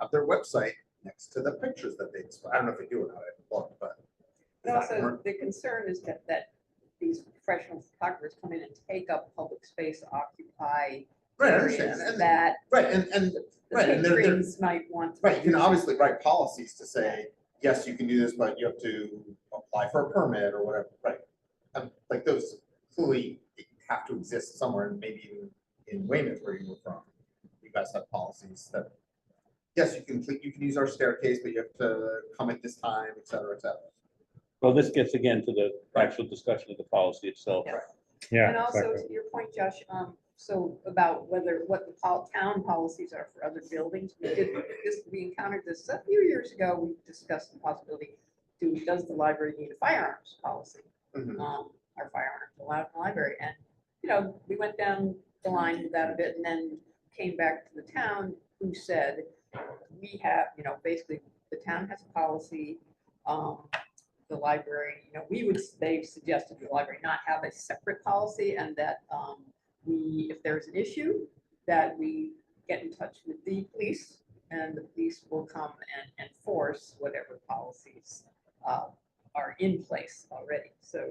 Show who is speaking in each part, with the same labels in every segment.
Speaker 1: of their website next to the pictures that they, I don't know if they do or not, I haven't looked, but.
Speaker 2: And also, the concern is that, that these professional photographers come in and take up public space, occupy
Speaker 1: Right, I understand,
Speaker 2: areas
Speaker 1: and,
Speaker 2: that
Speaker 1: right, and, and,
Speaker 2: the
Speaker 1: right, and they're, they're,
Speaker 2: patrons might want. to
Speaker 1: right, you can
Speaker 2: use.
Speaker 1: obviously write policies to say, yes, you can do this, but you have to apply for a permit or whatever, right? Um, like those clearly have to exist somewhere, and maybe even in Weymouth where you were from, you guys have policies that, yes, you can, you can use our staircase, but you have to come at this time, et cetera, et cetera.
Speaker 3: Well, this gets again to the actual discussion of the policy itself.
Speaker 2: Yeah.
Speaker 4: Yeah.
Speaker 2: And also,
Speaker 4: exactly.
Speaker 2: to your point, Josh, um, so about whether, what the pol- town policies are for other buildings, we did, this, we encountered this a few years ago, we discussed the possibility, do, does the library need a firearms policy?
Speaker 1: Mhm.
Speaker 2: um, our firearms allowed in the library. And, you know, we went down the line with that a bit and then came back to the town who said, we have, you know, basically, the town has a policy. um, The library, you know, we would, they've suggested the library not have a separate policy and that um, we, if there's an issue, that we get in touch with the police and the police will come and enforce whatever policies uh, are in place already, so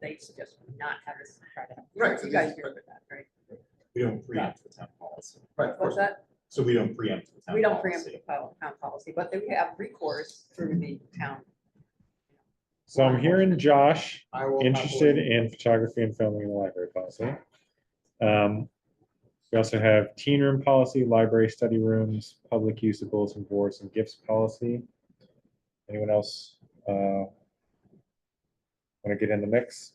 Speaker 2: they suggest we not have this. try to have-
Speaker 1: Right, so
Speaker 2: You guys
Speaker 1: this-
Speaker 2: remember that, right?
Speaker 5: We don't preempt the town policy,
Speaker 1: Right, of
Speaker 2: What's
Speaker 1: course,
Speaker 2: that?
Speaker 5: so we don't preempt the town.
Speaker 2: We don't preempt the
Speaker 5: policy.
Speaker 2: pol- town policy, but then we have recourse through the town.
Speaker 4: So I'm hearing Josh
Speaker 1: I will.
Speaker 4: interested
Speaker 1: happily-
Speaker 4: in photography and filming in the library policy. Um, We also have teen room policy, library study rooms, public use of bulletin boards and gifts policy. Anyone else? Want to get in the mix?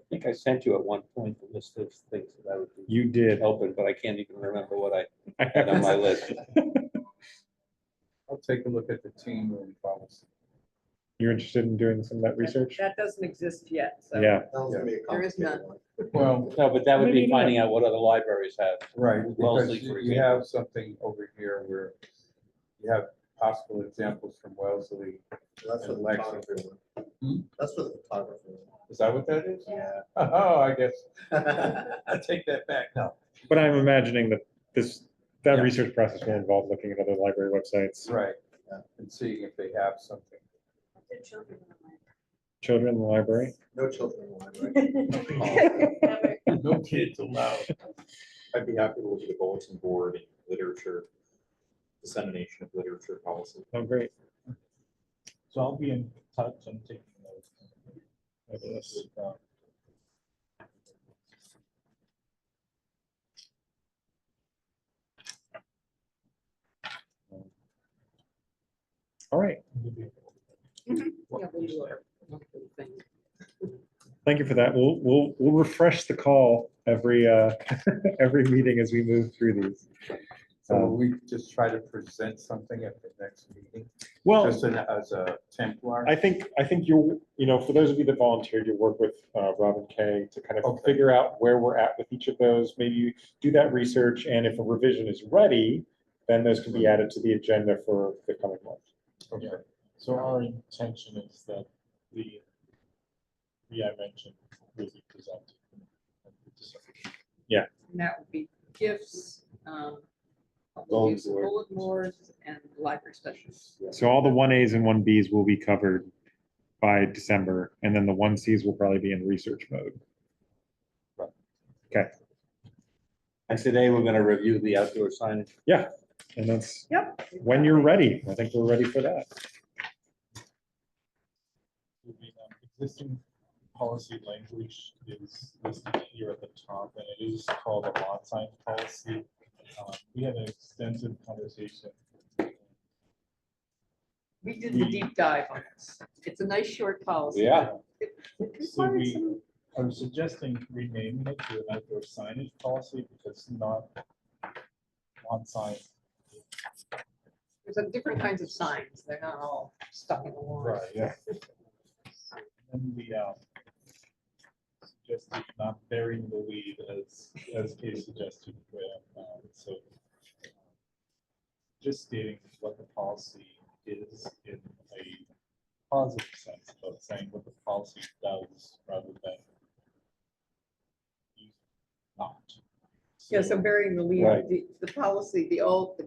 Speaker 3: I think I sent you at one point the list of things that I would be
Speaker 4: You did.
Speaker 3: open, but I can't even remember what I
Speaker 4: I
Speaker 3: had on my list.
Speaker 6: I'll take a look at the team room policy.
Speaker 4: You're interested in doing some of that research?
Speaker 2: That doesn't exist yet, so.
Speaker 4: Yeah,
Speaker 1: That was gonna be a
Speaker 2: There is
Speaker 1: complicated
Speaker 2: none.
Speaker 1: one.
Speaker 6: Well,
Speaker 3: No, but that would be
Speaker 4: Maybe not.
Speaker 3: finding out what other libraries have.
Speaker 6: right,
Speaker 3: Wellesley,
Speaker 6: because you
Speaker 3: for
Speaker 6: you have something over here where you have possible examples from Wellesley.
Speaker 1: That's for the
Speaker 6: Alexa.
Speaker 1: photographer
Speaker 6: Hmm?
Speaker 1: one. That's for the photographer. one.
Speaker 6: Is that what that is?
Speaker 1: Yeah.
Speaker 6: Oh, I guess, I take that back now.
Speaker 4: but I'm imagining that this, that
Speaker 6: Yeah.
Speaker 4: research process will involve looking at other library websites,
Speaker 6: Right,
Speaker 1: Yeah.
Speaker 6: and seeing if they have something.
Speaker 2: The children in the mind.
Speaker 4: children in the library.
Speaker 1: No children allowed,
Speaker 6: No kids allowed.
Speaker 5: I'd be happy to look at the bulletin board and literature, dissemination of literature policy.
Speaker 4: Oh, great.
Speaker 7: So I'll be in touch and taking notes. uh,
Speaker 4: Fabulous. All right.
Speaker 2: Yeah, we'll do our little thing.
Speaker 4: Thank you for that. We'll, we'll, we'll refresh the call every, uh, every meeting as we move through these.
Speaker 6: So will we just try to present something at the next meeting,
Speaker 4: Well,
Speaker 6: just in- as a Templar.
Speaker 4: I think, I think you'll, you know, for those of you that volunteered, you'll work with, uh, Robin Kay to kind of
Speaker 6: Okay.
Speaker 4: figure out where we're at with each of those. Maybe you do that research and if a revision is ready, then those can be added to the agenda for the coming month.
Speaker 6: Okay.
Speaker 7: So our intention is that the, the I mentioned will be presented.
Speaker 2: And that would be gifts, um, public
Speaker 5: Bulletin
Speaker 2: use of
Speaker 5: board.
Speaker 2: bulletin boards and library specials.
Speaker 4: So all the one As and one Bs will be covered by December, and then the one Cs will probably be in research mode.
Speaker 3: And today, we're gonna review the outdoor signage.
Speaker 4: And that's
Speaker 2: Yep.
Speaker 4: when you're ready. I think we're ready for that.
Speaker 7: The um, Existing policy language is listed here at the top, and it is called a lot size policy. Um, We had an extensive conversation.
Speaker 2: We did the deep dive on this. It's a nice short policy.
Speaker 3: Yeah.
Speaker 2: It
Speaker 7: So
Speaker 2: required
Speaker 7: we-
Speaker 2: some-
Speaker 7: I'm suggesting renaming it to an outdoor signage policy because not on sign.
Speaker 2: There's like different kinds of signs. They're not all stuck in the wall.
Speaker 7: yeah. And the, um, suggested not burying the lead as, as Katie suggested, uh, um, so. um, Just stating what the policy is in a positive sense, but saying what the policy does rather than. Not.
Speaker 2: Yeah, so burying the lead,
Speaker 3: Right.
Speaker 2: the, the policy, the old, the